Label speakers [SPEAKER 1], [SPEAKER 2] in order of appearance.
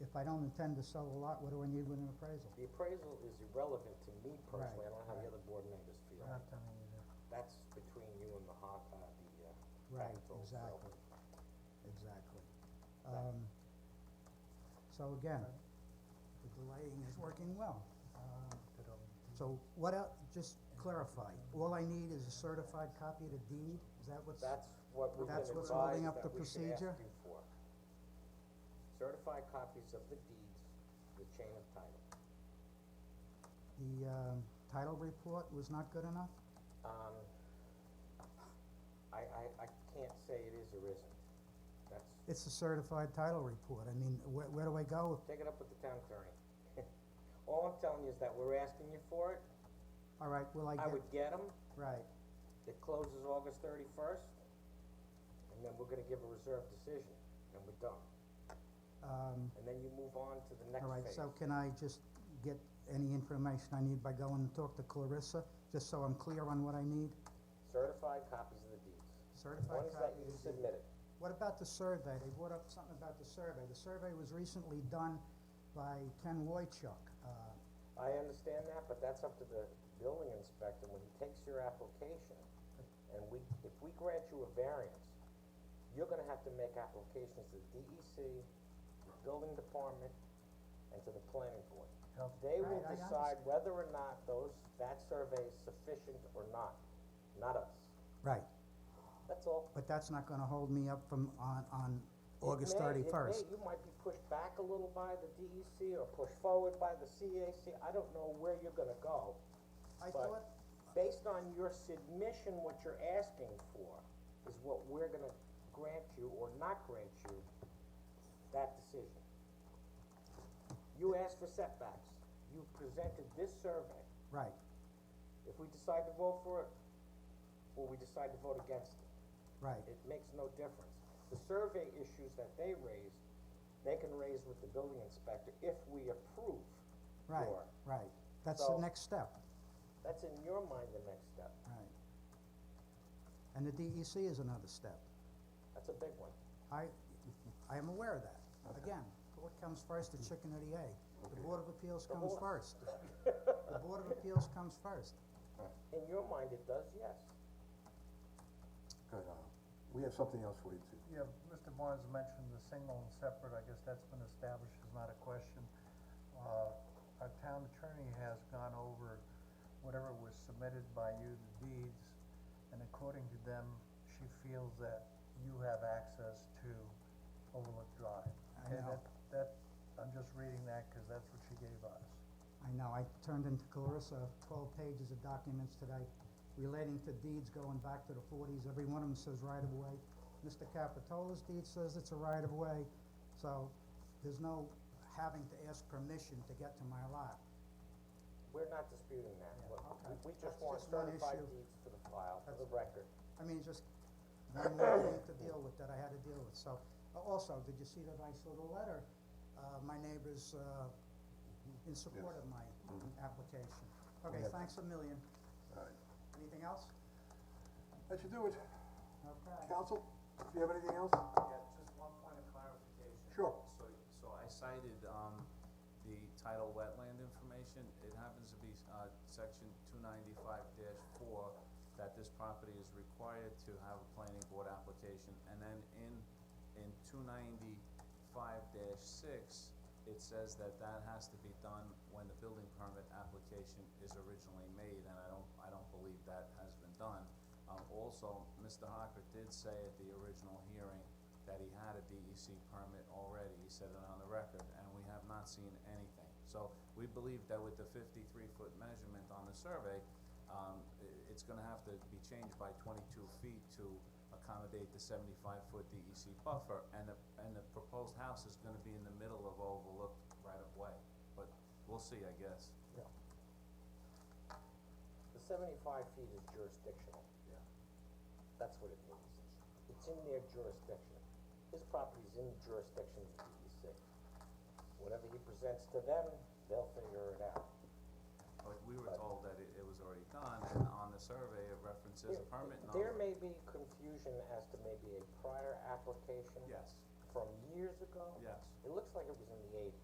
[SPEAKER 1] if I don't intend to sell the lot, what do I need with an appraisal?
[SPEAKER 2] The appraisal is irrelevant to me personally, I don't know how the
[SPEAKER 1] right.
[SPEAKER 2] other board members feel.
[SPEAKER 1] Not telling you that.
[SPEAKER 2] That's between you and the hot, uh, the, uh,
[SPEAKER 1] Right,
[SPEAKER 2] Capital, so-
[SPEAKER 1] exactly, exactly. Um, so again, the delaying is working well. Uh, So what else, just clarify, all I need is a certified copy of the deed, is that what's?
[SPEAKER 2] That's what we've been
[SPEAKER 1] That's what's
[SPEAKER 2] advised
[SPEAKER 1] holding up
[SPEAKER 2] that
[SPEAKER 1] the
[SPEAKER 2] we should ask
[SPEAKER 1] procedure?
[SPEAKER 2] you for. Certified copies of the deeds, the chain of title.
[SPEAKER 1] The, um, title report was not good enough?
[SPEAKER 2] Um, I, I, I can't say it is or isn't. That's,
[SPEAKER 1] It's a certified title report, I mean, where, where do I go?
[SPEAKER 2] take it up with the town attorney. All I'm telling you is that we're asking you for it,
[SPEAKER 1] All right, will I
[SPEAKER 2] I
[SPEAKER 1] get,
[SPEAKER 2] would get them,
[SPEAKER 1] right,
[SPEAKER 2] it closes August thirty-first, and then we're gonna give a reserve decision, and we're done.
[SPEAKER 1] um,
[SPEAKER 2] And then you move on to the next
[SPEAKER 1] all right,
[SPEAKER 2] phase.
[SPEAKER 1] so can I just get any information I need by going and talk to Clarissa, just so I'm clear on what I need?
[SPEAKER 2] Certified copies of the deeds.
[SPEAKER 1] Certified
[SPEAKER 2] One is that
[SPEAKER 1] copy
[SPEAKER 2] you
[SPEAKER 1] of the deed.
[SPEAKER 2] submit it.
[SPEAKER 1] What about the survey? They brought up something about the survey. The survey was recently done by Ken Wojcik. Uh,
[SPEAKER 2] I understand that, but that's up to the building inspector, when he takes your application, and we, if we grant you a variance, you're gonna have to make applications to DEC, building department, and to the planning board. They will
[SPEAKER 1] Oh, Right, I
[SPEAKER 2] decide whether or not those, that survey is sufficient or not, not us,
[SPEAKER 1] Right,
[SPEAKER 2] that's all.
[SPEAKER 1] but that's not gonna hold me up from, on, on
[SPEAKER 2] It
[SPEAKER 1] August
[SPEAKER 2] may- it may-
[SPEAKER 1] thirty-first.
[SPEAKER 2] You might be pushed back a little by the DEC, or pushed forward by the CAC, I don't know where you're gonna go.
[SPEAKER 1] I
[SPEAKER 2] but-
[SPEAKER 1] thought,
[SPEAKER 2] based on your submission, what you're asking for is what we're gonna grant you or not grant you that decision. You asked for setbacks, you presented this survey,
[SPEAKER 1] right,
[SPEAKER 2] if we decide to vote for it, or we decide to vote against it,
[SPEAKER 1] right,
[SPEAKER 2] it makes no difference. The survey issues that they raised, they can raise with the building inspector if we approve
[SPEAKER 1] right,
[SPEAKER 2] your,
[SPEAKER 1] right. That's the
[SPEAKER 2] So-
[SPEAKER 1] next step,
[SPEAKER 2] that's in your mind the next step,
[SPEAKER 1] right. And the DEC is another step.
[SPEAKER 2] that's a big one.
[SPEAKER 1] I, I am aware of that. Again, what comes first, the chicken or the egg? The Board of Appeals
[SPEAKER 2] The
[SPEAKER 1] comes first.
[SPEAKER 2] horse.
[SPEAKER 1] The Board of Appeals comes first.
[SPEAKER 2] In your mind, it does, yes.
[SPEAKER 3] Good, uh, we have something else for you too.
[SPEAKER 4] Yeah, Mr. Barnes mentioned the single and separate, I guess that's been established, is not a question. Uh, our town attorney has gone over whatever was submitted by you, the deeds, and according to them, she feels that you have access to Overlook Drive.
[SPEAKER 1] I
[SPEAKER 4] Okay,
[SPEAKER 1] know.
[SPEAKER 4] that- That, I'm just reading that, cause that's what she gave us.
[SPEAKER 1] I know, I turned into Clarissa twelve pages of documents today relating to deeds going back to the forties, every one of them says right of way. Mr. Capitola's deed says it's a right of way, so there's no having to ask permission to get to my lot.
[SPEAKER 2] We're not disputing that,
[SPEAKER 1] Yeah,
[SPEAKER 2] What-
[SPEAKER 1] okay.
[SPEAKER 2] we, we just
[SPEAKER 1] That's
[SPEAKER 2] want
[SPEAKER 1] just one
[SPEAKER 2] certified
[SPEAKER 1] issue.
[SPEAKER 2] deeds for the file, for the
[SPEAKER 1] That's-
[SPEAKER 2] record.
[SPEAKER 1] I mean, just one more thing to deal with that I had to deal with, so. uh, Also, did you see the nice little letter, uh, my neighbors, uh, in support of my application? Okay,
[SPEAKER 3] Yeah.
[SPEAKER 1] thanks a million.
[SPEAKER 3] All right,
[SPEAKER 1] Anything else?
[SPEAKER 3] uh, that should do it.
[SPEAKER 1] Okay.
[SPEAKER 3] Council, if you have anything else?
[SPEAKER 5] Yeah, just one point of clarification.
[SPEAKER 3] Sure.
[SPEAKER 5] So, so I cited, um, the title wetland information, it happens to be, uh, section two ninety-five four, that this property is required to have a planning board application, and then in, in two ninety-five six, it says that that has to be done when the building permit application is originally made, and I don't, I don't believe that has been done. Um, also, Mr. Hocker did say at the original hearing that he had a DEC permit already, he said it on the record, and we have not seen anything. So, we believe that with the fifty-three foot measurement on the survey, um, i- it's gonna have to be changed by twenty-two feet to accommodate the seventy-five foot DEC buffer, and the, and the proposed house is gonna be in the middle of overlooked right of way, but we'll see, I guess.
[SPEAKER 2] The seventy-five feet is jurisdictional. Yeah. That's what it means. It's in their jurisdiction. His property's in the jurisdiction of the DEC. Whatever he presents to them, they'll figure it out.
[SPEAKER 5] But we were told that it, it was already done, and on the survey, it references a
[SPEAKER 2] There-
[SPEAKER 5] permit
[SPEAKER 2] There
[SPEAKER 5] number,
[SPEAKER 2] may be confusion as to maybe a prior application
[SPEAKER 5] yes,
[SPEAKER 2] from years ago.
[SPEAKER 5] yes.
[SPEAKER 2] It looks like it was in the eighties.